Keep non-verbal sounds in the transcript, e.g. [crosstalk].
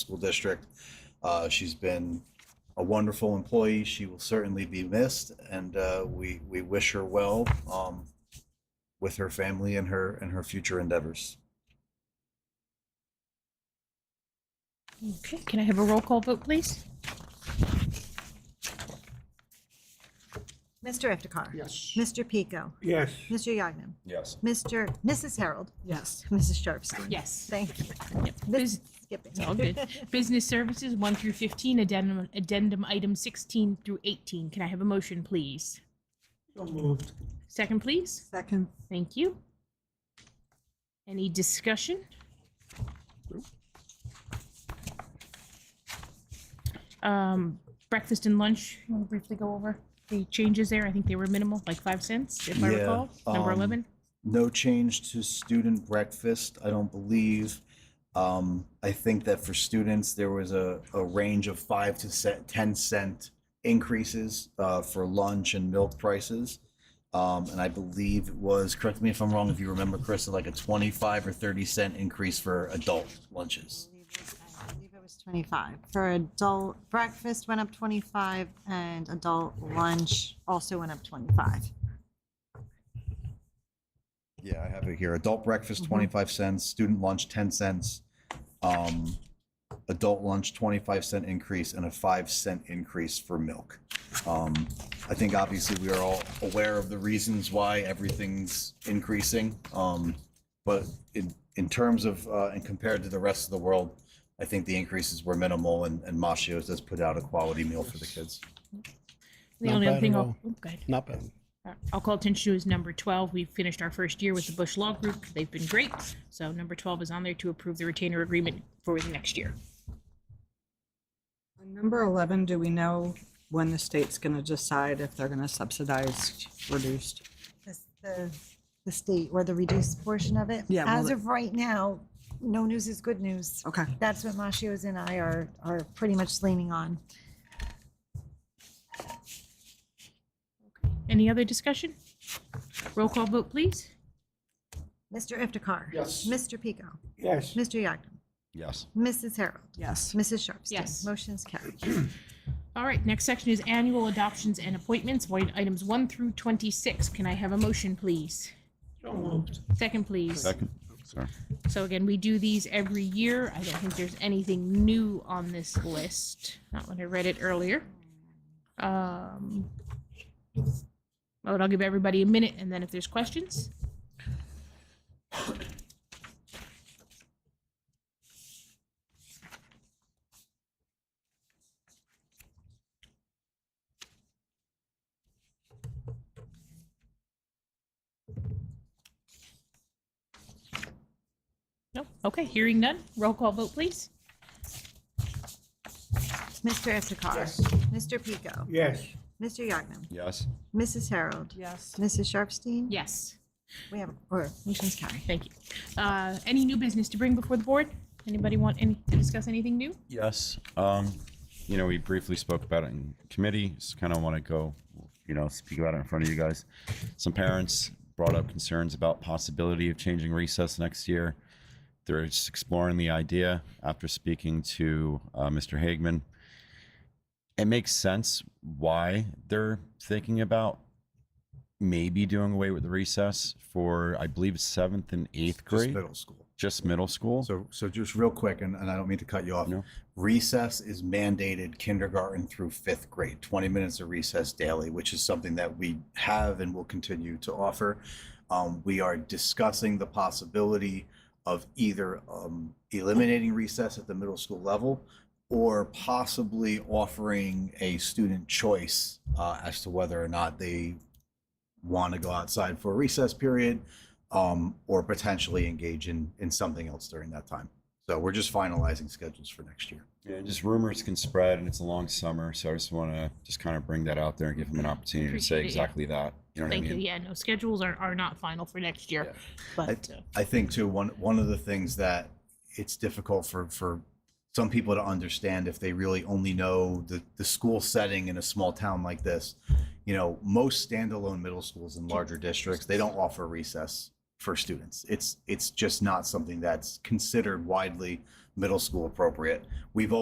School District. Uh, She's been a wonderful employee. She will certainly be missed, and uh, we we wish her well um, with her family and her and her future endeavors. Okay, can I have a roll call vote, please? Mr. Iftikhar? Yes. Mr. Pico? Yes. Mr. Yagnam? Yes. Mr. Mrs. Harold? Yes. Mrs. Sharpstein? Yes. Thank you. This Bus- is skipping. All good. Business services, one through 15, addendum, addendum item 16 through 18. Can I have a motion, please? So moved. Second, please. [laughs] Second. Thank you. Any discussion? Um, breakfast and lunch, you want to briefly go over the changes there? I think they were minimal, like five cents, if I Yeah, recall. Number um, 11? No change to student breakfast, I don't believe. Um, I think that for students, there was a, a range of five to se- ten cent increases uh, for lunch and milk prices. Um, and I believe it was, correct me if I'm wrong, if you remember, Chris, like a 25 or 30 cent increase for adult lunches. I believe it was 25. For adult breakfast went up 25 and adult lunch also went up 25. Yeah, I have it here. Adult breakfast, 25 cents, student lunch, 10 cents. Um, adult lunch, 25 cent increase and a 5 cent increase for milk. Um, I think obviously we are all aware of the reasons why everything's increasing. Um, but in, in terms of, uh, and compared to the rest of the world, I think the increases were minimal and, and Machios does put out a quality meal for the kids. The Not only other bad thing at I'll, all. oh, go ahead. Not bad. Uh, I'll call attention to is number 12. We finished our first year with the Bush Law Group. They've been great. So number 12 is on there to approve the retainer agreement for the next year. On Number 11, do we know when the state's going to decide if they're going to subsidize reduced? This- The, the state or the reduced portion of it. Yeah, well, As the- of right now, no news is good news. Okay. That's what Mashios and I are, are pretty much leaning on. Any other discussion? Roll call vote, please. Mr. Iftikhar? Yes. Mr. Pico? Yes. Mr. Yagnam? Yes. Mrs. Harold? Yes. Mrs. Sharpstein? Yes. Motion's carried. All right, next section is annual adoptions and appointments, void items 1 through 26. Can I have a motion, please? So moved. Second, please. Second. Oh, Sorry. So again, we do these every year. I don't think there's anything new on this list, not when I read it earlier. Um, But I'll give everybody a minute, and then if there's questions. No? Okay, hearing none. Roll call vote, please. Mr. Iftikhar? Yes. Mr. Pico? Yes. Mr. Yagnam? Yes. Mrs. Harold? Yes. Mrs. Sharpstein? Yes, We have, or motion's carried. thank you. Uh, Any new business to bring before the board? Anybody want any, to discuss anything new? Yes. Um, you know, we briefly spoke about it in committee. Just kind of want to go, you know, speak about it in front of you guys. Some parents brought up concerns about possibility of changing recess next year. They're just exploring the idea after speaking to uh, Mr. Hagman. It makes sense why they're thinking about maybe doing away with the recess for, I believe, seventh and eighth Just grade, Middle school. just middle school. So, so just real quick, and, and I don't mean to cut you off. No. Recess is mandated kindergarten through fifth grade, 20 minutes of recess daily, which is something that we have and will continue to offer. Um, we are discussing the possibility of either um, eliminating recess at the middle school level or possibly offering a student choice uh, as to whether or not they want to go outside for a recess period um, or potentially engage in, in something else during that time. So we're just finalizing schedules for next year. Yeah, just rumors can spread, and it's a long summer, so I just want to just kind of bring that out there and give them an opportunity to Appreciate it, say yeah. exactly that. You know what Thank I you. mean? Yeah, no, schedules are, are not final for next year, but. uh, I think too one one of the things that it's difficult for for some people to understand if they really only know the the school setting in a small town like this. You know, most standalone middle schools in larger districts they don't offer recess for students. It's it's just not something that's considered widely middle school appropriate. We've always